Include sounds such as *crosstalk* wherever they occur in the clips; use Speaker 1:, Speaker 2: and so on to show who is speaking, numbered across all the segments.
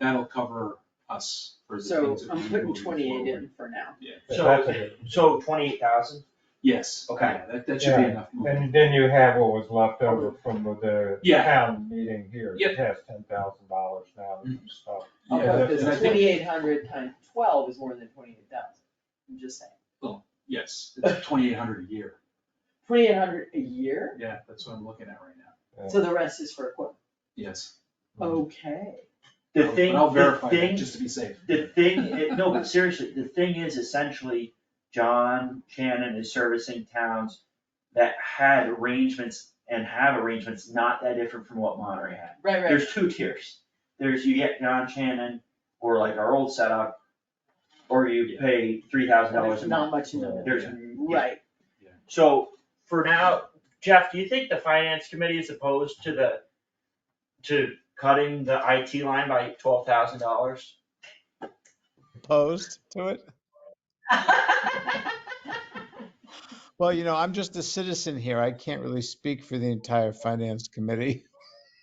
Speaker 1: that'll cover us for the
Speaker 2: So
Speaker 1: things that we
Speaker 2: I'm
Speaker 1: do
Speaker 2: putting
Speaker 1: moving
Speaker 2: twenty-eight
Speaker 1: forward.
Speaker 2: in for now.
Speaker 3: So, so twenty-eight thousand?
Speaker 1: Yes,
Speaker 3: Okay.
Speaker 1: okay, that, that should be
Speaker 4: Yeah,
Speaker 1: enough. movement.
Speaker 4: And then you have what was left over from the
Speaker 1: Yeah.
Speaker 4: town meeting here,
Speaker 1: Yep.
Speaker 4: it has ten thousand dollars now and
Speaker 3: Mm-hmm.
Speaker 4: stuff.
Speaker 2: How
Speaker 1: Yeah,
Speaker 2: about
Speaker 4: that-
Speaker 2: this,
Speaker 1: and I think-
Speaker 2: twenty-eight hundred times twelve is more than twenty-eight thousand, I'm just saying.
Speaker 1: Yes, it's twenty-eight hundred a year,
Speaker 2: Twenty-eight hundred a year,
Speaker 1: yeah, that's what I'm looking at right now,
Speaker 2: so the rest is for equipment,
Speaker 1: yes.
Speaker 2: okay.
Speaker 3: The
Speaker 1: I'll-
Speaker 3: thing,
Speaker 1: But I'll
Speaker 3: the
Speaker 1: verify that,
Speaker 3: thing,
Speaker 1: just to be safe.
Speaker 3: the thing, i- no, but seriously, the thing is essentially, John Shannon is servicing towns that had arrangements and have arrangements not that different from what Monterey had.
Speaker 2: Right, right,
Speaker 3: There's two tiers. There's you get John Shannon or like our old setup, or you pay three thousand dollars
Speaker 2: there's
Speaker 3: a
Speaker 2: not
Speaker 3: month.
Speaker 2: much in the middle,
Speaker 3: There's,
Speaker 2: right,
Speaker 3: so for now, Jeff, do you think the finance committee is opposed to the, to cutting the IT line by twelve thousand dollars?
Speaker 5: opposed to it? Well, you know, I'm just a citizen here. I can't really speak for the entire finance committee.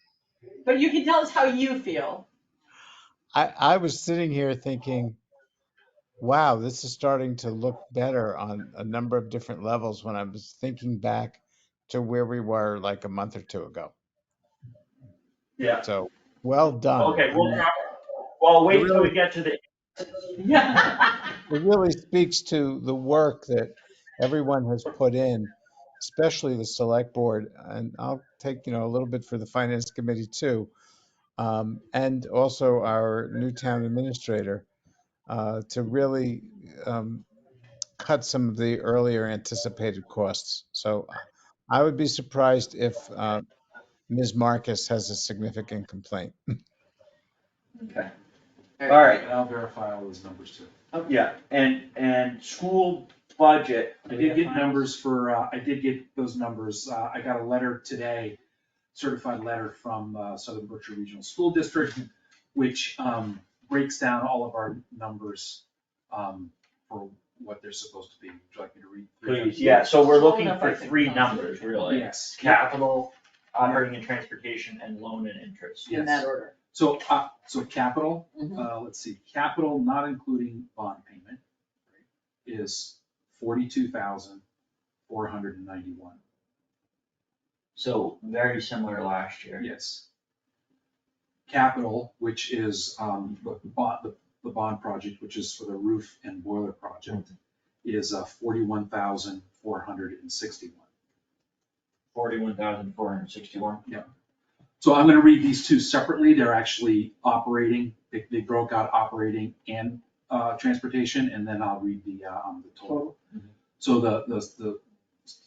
Speaker 5: *laughs*
Speaker 2: but you can tell us how you feel.
Speaker 5: I, I was sitting here thinking, wow, this is starting to look better on a number of different levels when I was thinking back to where we were like a month or two ago.
Speaker 3: Yeah.
Speaker 5: So, well done.
Speaker 3: Okay,
Speaker 5: I
Speaker 3: well,
Speaker 5: mean,
Speaker 3: now- well, wait till we get to the,
Speaker 2: *laughs* Yeah.
Speaker 5: It really speaks to the work that everyone has put in, especially the select board, and I'll take, you know, a little bit for the finance committee too. Um, and also our new town administrator, uh, to really, um, cut some of the earlier anticipated costs. So I would be surprised if, uh, Ms. Marcus has a significant complaint.
Speaker 3: alright,
Speaker 1: And I'll verify all those numbers too.
Speaker 3: yeah, and, and school budget.
Speaker 1: I did get numbers for, uh, I did get those numbers, uh, I got a letter today, certified letter from, uh, Southern Berkshire Regional School District, which, um, breaks down all of our numbers, um, for what they're supposed to be, would you like me to read? through them?
Speaker 3: Please, yeah, so we're
Speaker 2: Slow
Speaker 3: looking
Speaker 2: enough, I
Speaker 3: for
Speaker 2: think.
Speaker 3: three numbers, really.
Speaker 1: Yes.
Speaker 3: Capital, operating and transportation, and loan and interest.
Speaker 2: In
Speaker 1: Yes.
Speaker 2: that order.
Speaker 1: So, uh, so capital,
Speaker 2: Mhm.
Speaker 1: uh, let's see, capital not including bond payment is forty-two thousand, four hundred and ninety-one.
Speaker 3: So very similar last year.
Speaker 1: Yes. Capital, which is, um, the bond, the, the bond project, which is for the roof and boiler project, is uh, forty-one thousand, four hundred and sixty-one.
Speaker 3: Forty-one thousand four hundred sixty-one.
Speaker 1: So I'm gonna read these two separately, they're actually operating, they, they broke out operating and, uh, transportation, and then I'll read the, uh, um, the total. So the, the,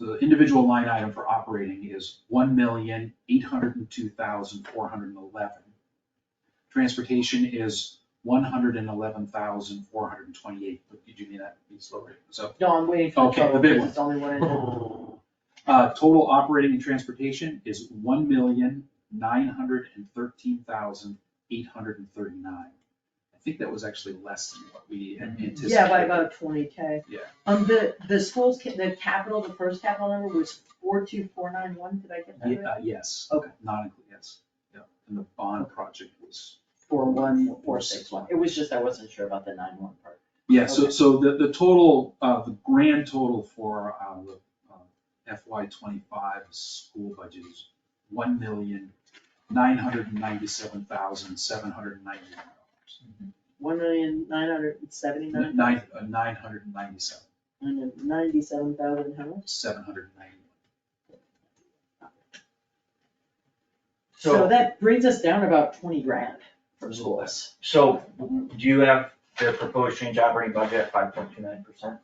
Speaker 1: the, the individual line item for operating is one million, eight hundred and two thousand, four hundred and eleven. Transportation is one hundred and eleven thousand, four hundred and twenty-eight, but did you mean that, be slower, so.
Speaker 2: No, I'm waiting for
Speaker 1: Okay,
Speaker 2: the
Speaker 1: the
Speaker 2: total,
Speaker 1: big
Speaker 2: because it's only
Speaker 1: *laughs*
Speaker 2: one. in there.
Speaker 1: Uh, total operating and transportation is one million, nine hundred and thirteen thousand, eight hundred and thirty-nine. I think that was actually less than what we had anticipated.
Speaker 2: Yeah, by about twenty K.
Speaker 1: Yeah.
Speaker 2: Um, the, the schools, ca- the capital, the first capital number was four two four nine one, did I get that
Speaker 1: Ye-
Speaker 2: right?
Speaker 1: uh, yes.
Speaker 2: Okay.
Speaker 1: Not included, yes, yeah, and the bond project was,
Speaker 2: Four one four six one, it was just, I wasn't sure about the nine one part.
Speaker 1: yeah, so,
Speaker 2: Okay.
Speaker 1: so the, the total, uh, the grand total for, uh, the uh, FY twenty-five school budget is one million, nine hundred and ninety-seven thousand, seven hundred and ninety-one dollars.
Speaker 2: One million nine hundred and seventy-nine,
Speaker 1: Nine, uh, nine hundred and ninety-seven,
Speaker 2: ninety-seven thousand, how much?
Speaker 1: seven hundred and ninety-one.
Speaker 2: So
Speaker 3: So,
Speaker 2: that brings us down about twenty grand for schools.
Speaker 3: so do you have the proposed change operating budget at five point two nine percent?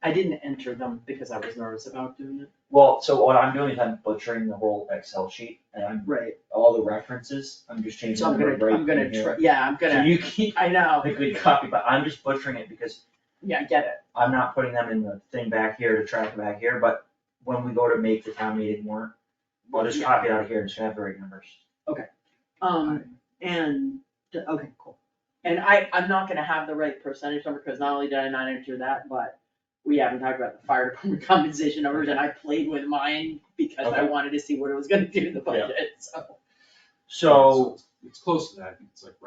Speaker 2: I didn't enter them because I was nervous about doing it.
Speaker 3: Well, so what I'm doing is I'm butchering the whole Excel sheet and I'm,
Speaker 2: Right.
Speaker 3: all the references, I'm just changing
Speaker 2: So I'm
Speaker 3: the word
Speaker 2: gonna,
Speaker 3: right
Speaker 2: I'm gonna,
Speaker 3: in here.
Speaker 2: try- yeah, I'm
Speaker 3: So
Speaker 2: gonna,
Speaker 3: you keep,
Speaker 2: I know,
Speaker 3: I could copy, but I'm just butchering it because
Speaker 2: yeah, I get it.
Speaker 3: I'm not putting them in the thing back here to track it back here, but when we go to make the town meeting warrant, we'll just
Speaker 2: Yeah.
Speaker 3: copy it out of here and just have the right numbers.
Speaker 2: Um, and, okay, cool. And I, I'm not gonna have the right percentage number, because not only did I not enter that, but we haven't talked about the fire *laughs* department compensation numbers, and I played with mine because I
Speaker 3: Okay.
Speaker 2: wanted to see what it was gonna do to the budget, so.
Speaker 3: So.
Speaker 1: It's close to that, I think it's like right